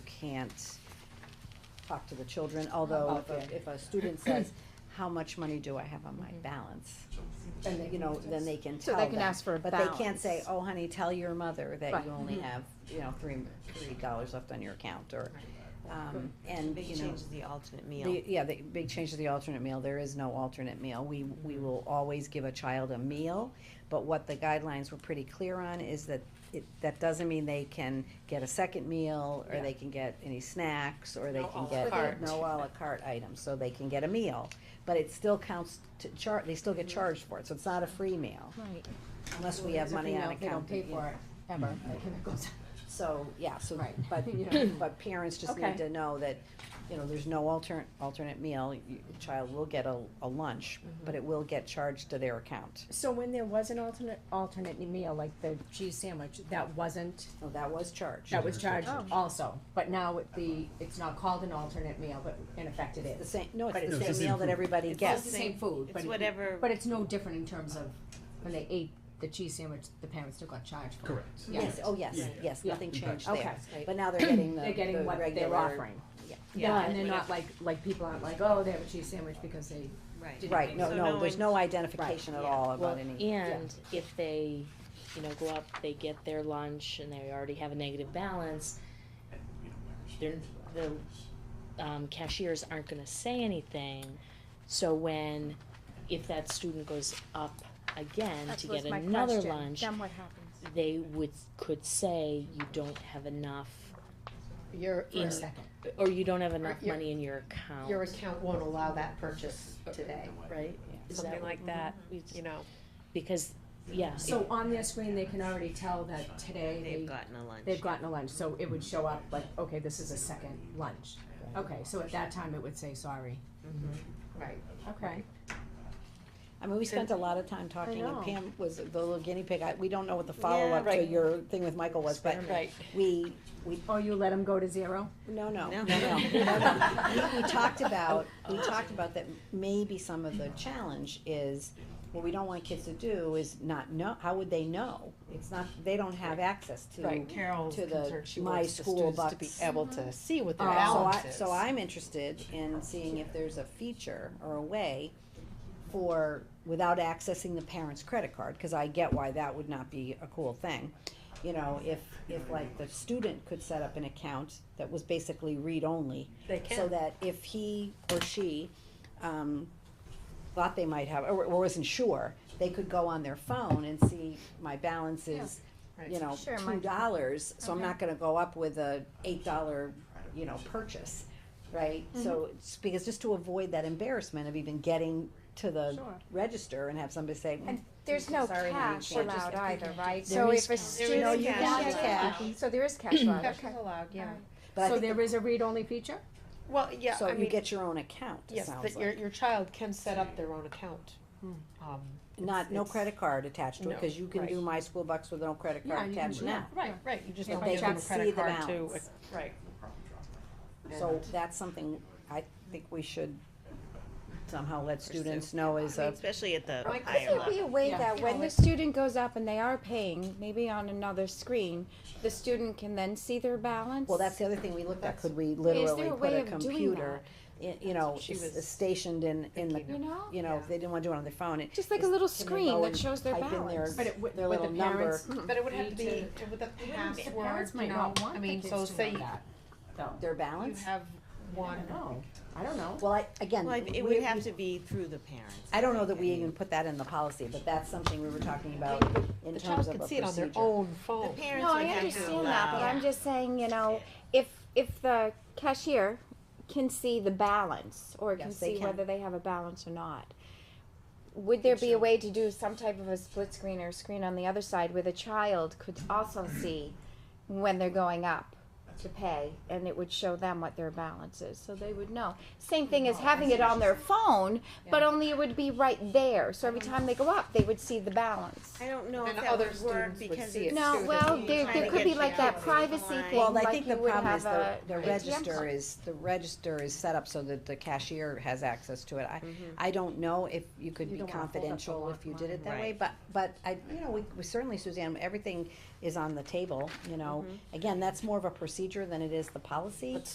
can't talk to the children, although About if a, that. if a student says, how much money do I have on my balance? Then, they- you know, then they can Mm-hmm. So tell they them. can ask for a But they can't say, balance. oh honey, tell your mother that Right. Mm-hmm. you only have, you know, three, three dollars left on your account, or, um, and, Big you know. change is the alternate The, meal. yeah, the big change to the alternate meal, there is no alternate meal. We, we Mm-hmm. will always give a child a meal, but what the guidelines were pretty clear on is that it, that doesn't mean they can get a second meal, or they can get any snacks, or they No can à la get carte. no à la carte items, so they can get a meal. But it still counts to char, they still get Mm-hmm. charged for it, so it's not a free meal, Right. unless we have money on account. They don't pay that, you know. for it, ever. It goes- So, yeah, so, Right. but, You know. but parents just Okay. need to know that, you know, there's no alternate, alternate meal. You- Your child will get a, a lunch, Mm-hmm. but it will get charged to their account. So when there was an alternate, alternate meal, like the cheese sandwich, that wasn't, No, that was charged. Oh, that was charged also, but now it- the, it's not called an alternate meal, but in effect it The is. same, no, But it's it's the the same meal that everybody It's just gets. the same food, but. It's it- whatever- But it's no different in terms of when they ate the cheese sandwich, the parents still got charged for it. Correct. Yeah. Yes, oh, yes, Yeah. yes, Yeah. nothing Okay. changed Okay. there. But now they're getting the, They're getting the what they're regular- offering. yeah. Yeah, and they're whatever- not like, like people aren't like, oh, they have a cheese sandwich because they Right. Didn't Right, no, So no, there's one- no identification at yeah. all Well, about any. and if they, you know, go up, they get their lunch and they already have a negative balance, they're, the, um, cashiers aren't gonna say anything. So when, if that student goes up again That to was get my another question. lunch, Then what happens? they would, could say, you don't have enough, Your, for your- a second. or you don't have enough Your- money in your account. your account won't allow that purchase today. Right? Is that Something what- like that, Mm-hmm. you know, Because, yeah, So on their screen, they can already tell that today they've gotten a lunch. they, they've gotten a lunch, so it would show up like, okay, this is a second lunch. Okay, so at that time, it would say, sorry. Mm-hmm. Right. Okay. I mean, we spent a lot of time talking, and know. Pam was the little guinea pig. I, we don't know what the follow-up to right. your thing with Michael was, but we, we Oh, you let them go to zero? No, no, no, No. no. no. We we talked about, we talked about that maybe some of the challenge is, what we don't want kids to do is not know, how would they know? It's not, they don't have access to, Right, to Carol's the, concerned, she my wants the school students to be bucks. able to see what their Oh. Uh, so balance I- is. So I'm interested in seeing if there's a feature or a way for, without accessing the parent's credit card, cause I get why that would not be a cool thing. You know, if, if like the student could set up an account that was basically read-only. So that if he or she, um, thought they might have, or, or wasn't sure, they could go on their phone and see my balance is, you know, Sure, two my- dollars, so I'm Okay. not gonna go up with a eight dollar, you know, purchase, right? So, it's because just to avoid that embarrassment of even getting to the Sure. register and have somebody say, And there's no Sorry, honey, cash can't allowed either, right? There So is if a cash. student. No, you Yeah, can yeah, get yeah. So there is Mm-hmm. cash allowed, okay. allowed, yeah. but I So think there is a read-only feature? Well, yeah, So I you mean, get your own account, it yes, sounds that your, like. your child can set up their own account. Um, Not, no it's- credit card attached to it, No, cause you can do right. my school bucks with no credit Yeah, card you can attached do now. Right, right, you just And don't they give them can a see credit the card to, balance. right. So that's something I think we should somehow let students know is I a mean, Especially at the Like, higher Could there be level. a way Yeah. that You when know, the it- student goes up and they are paying, maybe on another screen, the student can then see their balance? Well, that's the other thing we looked at, could we there literally a put way a of doing computer, i- you know, She s- was stationed in, in the, You know? you know, if they didn't wanna do it on their phone, it. Just like a little screen that shows their type in their- balance. But it would- Their would little the number. parents- But it would have to Need be with a password, Parents you might know, not want I the mean, kids so to say know you that, though. Their you balance? have I one, don't know, I don't know. Well, I, again, Well, it we- would have to be through the parents. I don't know that we think. even put that in the policy, but that's something we were talking about in the terms child of a can see it on their procedure. own The phone. parents No, would I have to understand that, but allow. I'm just saying, you know, if, if the cashier can see the balance, or can Yes, they see can. whether they have a balance or not, would there be a way to do some type of a split screen or screen on the other side where the child could also see when they're going up to pay, and it would show them what their balance is, so they would know? Same thing as having it on their phone, but only it would be right there, so every time they go up, they would see the balance. I don't know if And that other would work students would because see it's. it No, too, well, that there, trying there to could get be like you out that of the privacy line. thing, Well, I like think the you would problem have is the, a the ATM register card. is, the register is set up so that the cashier has access to it. I, Mm-hmm. I don't know if you could You be don't wanna hold up the confidential if you did line. it that way, but, but I, you know, we, we certainly, Suzanne, everything Mm-hmm. is on the table, you know. Again, that's more of a procedure than it is the policy.